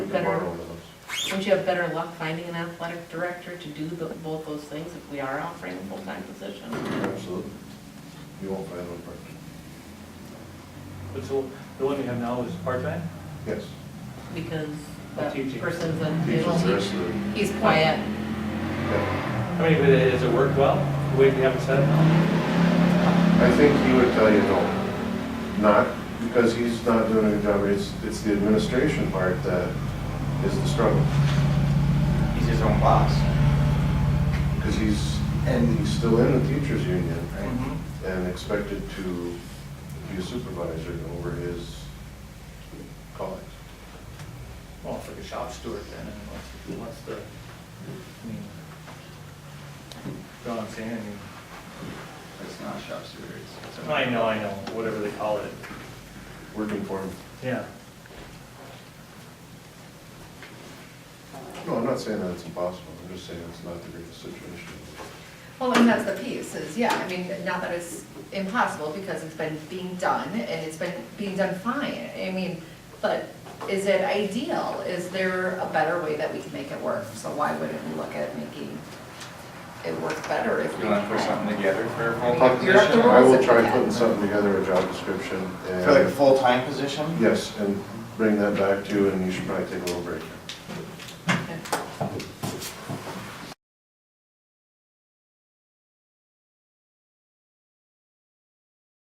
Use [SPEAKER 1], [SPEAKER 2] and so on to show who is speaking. [SPEAKER 1] Wouldn't you have better luck finding an athletic director to do the- both those things if we are offering a full-time position?
[SPEAKER 2] Absolutely. You won't find one person.
[SPEAKER 3] But so, the one we have now is part-time?
[SPEAKER 2] Yes.
[SPEAKER 1] Because
[SPEAKER 3] Teaching.
[SPEAKER 1] that person's
[SPEAKER 2] Teaches the rest
[SPEAKER 1] a,
[SPEAKER 2] of the,
[SPEAKER 1] he's quiet.
[SPEAKER 2] yeah.
[SPEAKER 3] I mean, but does it work well, the way we have it set up now?
[SPEAKER 2] I think he would tell you no. Not because he's not doing a good job, it's, it's the administration part that is the struggle.
[SPEAKER 4] He's his own boss.
[SPEAKER 2] Because he's, and he's still in the teachers union
[SPEAKER 4] Mhm.
[SPEAKER 2] and expected to be a supervisor over his colleagues.
[SPEAKER 3] Well, it's like a shop steward then, and what's, what's the, I mean, you know what I'm saying? I mean,
[SPEAKER 4] It's not shop steward. it's- it's a-
[SPEAKER 3] I know, I know, whatever they call it,
[SPEAKER 2] Working for him.
[SPEAKER 3] yeah.
[SPEAKER 2] No, I'm not saying that it's impossible, I'm just saying it's not the greatest situation.
[SPEAKER 5] Well, and that's the piece, is, yeah, I mean, not that it's impossible, because it's been being done, and it's been being done fine, I mean, but is it ideal? Is there a better way that we can make it work? So why wouldn't we look at making it work better if we
[SPEAKER 4] You want to put
[SPEAKER 5] can?
[SPEAKER 4] something together for a
[SPEAKER 5] You're
[SPEAKER 4] full-time
[SPEAKER 5] up to
[SPEAKER 4] position?
[SPEAKER 5] rules.
[SPEAKER 2] I will try
[SPEAKER 5] Yeah.
[SPEAKER 2] putting something together, a job description,
[SPEAKER 4] For like a
[SPEAKER 2] and,
[SPEAKER 4] full-time position?
[SPEAKER 2] yes, and bring that back to you, and you should probably take a little break.